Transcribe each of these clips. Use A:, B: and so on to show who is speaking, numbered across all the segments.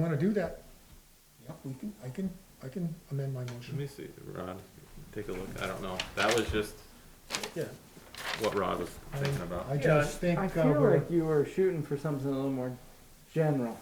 A: wanna do that,
B: Yep.
A: we can, I can, I can amend my
C: Let
A: motion.
C: me see, Rod, take a look, I don't know, that was just
A: Yeah.
C: what Rod was
A: I-
C: thinking about.
A: I just think,
D: I
A: uh,
D: feel
A: we're-
D: like you were shooting for something a little more general.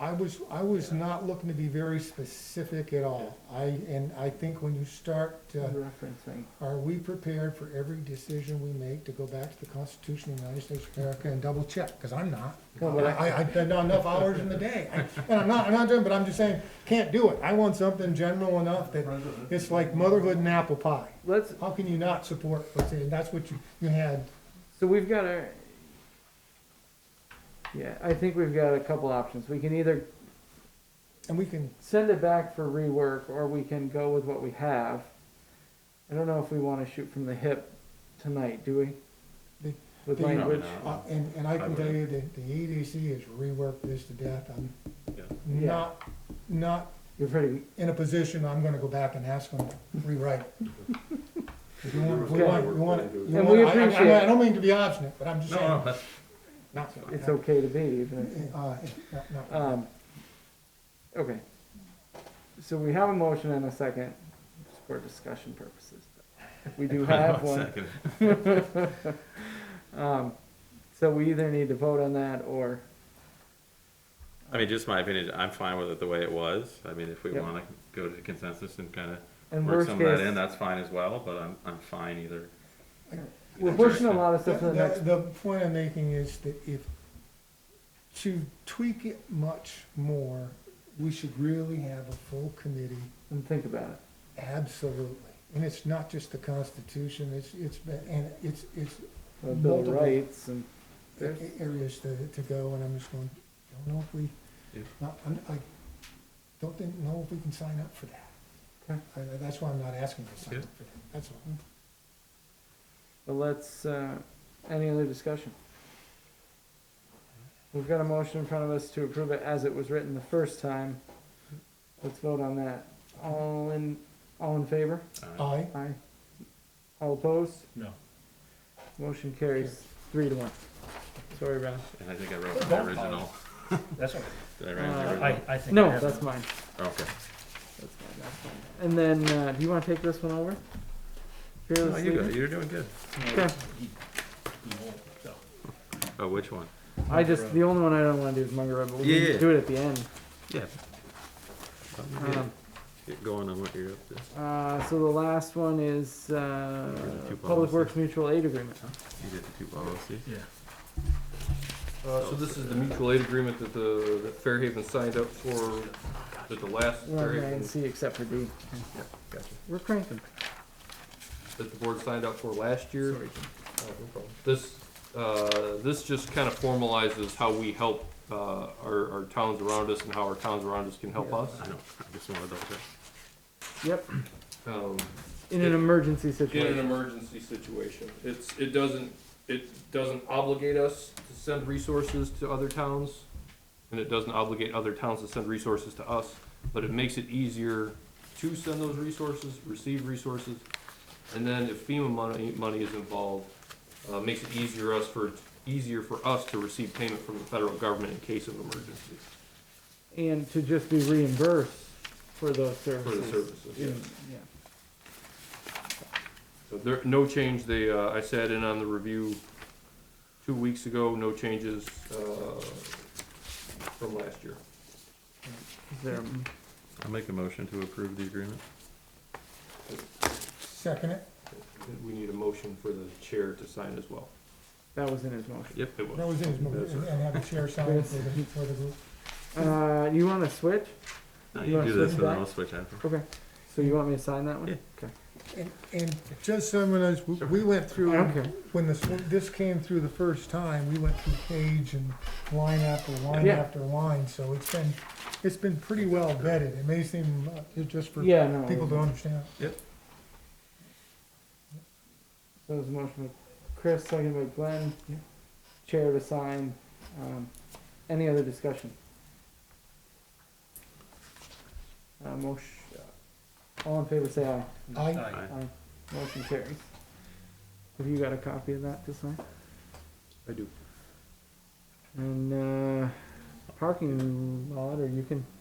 A: I was, I was not looking to be very specific at all. I, and I think when you start, uh,
D: Referencing.
A: Are we prepared for every decision we make to go back to the Constitution of the United States of America and double check? Cause I'm not.
D: No, but I-
A: I, I've done enough hours in the day. I- And I'm not, I'm not doing, but I'm just saying, can't do it. I want something general enough that it's like motherhood and apple pie.
D: Let's,
A: How can you not support, let's say, and that's what you, you had.
D: so we've got our, yeah, I think we've got a couple options. We can either
A: And we can,
D: send it back for rework or we can go with what we have. I don't know if we wanna shoot from the hip tonight, do we?
A: The-
D: With
A: the-
D: language,
C: Probably
A: uh, and, and I
C: I
A: can tell you that the EDC has reworked this to death. I'm
C: Yeah.
D: Yeah.
A: not, not
D: you're pretty,
A: in a position, I'm gonna go back and ask them to rewrite it. If you want- we want- we want- you
D: And
A: want-
D: we
A: I- I-
D: appreciate
A: I don't mean to be obstinate, but I'm just
C: No, no,
A: saying,
C: that's,
A: not,
D: it's okay to be, even.
A: uh, not- not-
D: Um, okay. So we have a motion and a second for discussion purposes. We do have
C: one
D: one.
C: second.
D: Um, so we either need to vote on that or,
C: I mean, just my opinion, I'm fine with it the way it was, I mean, if we
D: Yep.
C: wanna go to consensus and kinda
D: in
C: work
D: worst
C: some of that in,
D: case,
C: that's fine as well, but I'm, I'm fine either.
D: we're pushing a lot of stuff to the
A: The,
D: next.
A: the point I'm making is that if, to tweak it much more, we should really have a full committee
D: And think about it.
A: Absolutely. And it's not just the Constitution, it's, it's, been- and it's, it's
D: The Bill of
A: Multiple.
D: Rights and
A: a-
D: there's,
A: areas to, to go, and I'm just going, don't know if we,
C: Yeah.
A: not, I'm- I don't think, know if we can sign up for that.
D: Okay.
A: I- I- That's why I'm not asking to sign
C: Yeah.
A: up for that, that's all.
D: but let's, uh, any other discussion? We've got a motion in front of us to approve it as it was written the first time. Let's vote on that. All in, all in favor?
C: Alright.
A: Aye,
D: Aye. All opposed?
B: No.
D: Motion carries three to one. Sorry, Ron.
C: And I think I wrote my
B: Don't
C: original,
B: That's okay.
C: did I write my
D: Uh,
C: original?
B: I think. I
D: No,
B: have
D: that's
B: them.
D: mine.
C: Okay.
D: That's fine, that's fine. And then, uh, do you wanna take this one over?
C: No,
D: Fearless
C: you go,
D: leader?
C: you're doing good.
B: No,
D: Okay.
B: he- he won't, so.
C: Oh, which one?
D: I just, the only one I don't wanna do is Munger Road, but we
C: Yeah,
D: need to
C: yeah.
D: do it at the end.
C: Yeah.
D: Um,
C: Get going on what you're up to.
D: uh, so the last one is, uh,
C: Two
D: Public
C: policies.
D: Works Mutual Aid Agreement.
C: You did the two policies.
B: Yeah.
E: Uh, so this is the mutual aid agreement that the, that Fairhaven signed up for, that the last
D: We're on A
E: Fairhaven,
D: and C except for D.
E: gotcha,
D: We're cranking.
E: that the board signed up for last year.
D: Sorry.
E: Uh, no problem. This, uh, this just kind of formalizes how we help, uh, our, our towns around us and how our towns around us can help us.
C: I know, I just wanted to double check.
D: Yep,
E: Um,
D: in an emergency
E: in an
D: situation.
E: emergency situation. It's, it doesn't, it doesn't obligate us to send resources to other towns, and it doesn't obligate other towns to send resources to us, but it makes it easier to send those resources, receive resources, and then if FEMA money, money is involved, uh, makes it easier us for, easier for us to receive payment from the federal government in case of emergency
D: And to just be reimbursed for those
E: for the
D: services.
E: services,
D: Yeah.
E: yes. So there, no change, they, uh, I sat in on the review two weeks ago, no changes, uh, from last year.
D: Is there,
C: I'll make a motion to approve the agreement.
A: second it,
E: We need a motion for the chair to sign as well.
D: that was in his motion.
C: Yep.
E: It was.
A: that was in his motion,
E: That's
A: and- and have the chair sign it for the, for the group.
D: Uh, you wanna switch?
C: No,
D: You
C: you
D: wanna
C: do this
D: switch
C: and then
D: back?
C: I'll switch after.
D: Okay, so you want me to sign that one?
C: Yeah.
D: Okay.
A: And, and just so everyone knows, we- we went
D: I
A: through.
D: don't care.
A: when this, this came through the first time, we went through page and line after line
D: Yeah.
A: after line, so it's been, it's been pretty well vetted. It may seem, uh, it's just for
D: Yeah, no.
A: people to understand.
D: That was a motion by Chris, second by Glenn. Chair to sign. Um, any other discussion? Uh, motion, uh, all in favor, say aye.
A: I,
B: Aye.
C: Aye.
D: Motion carries. Have you got a copy of that to sign?
E: I do.
D: And, uh, parking lot, or you can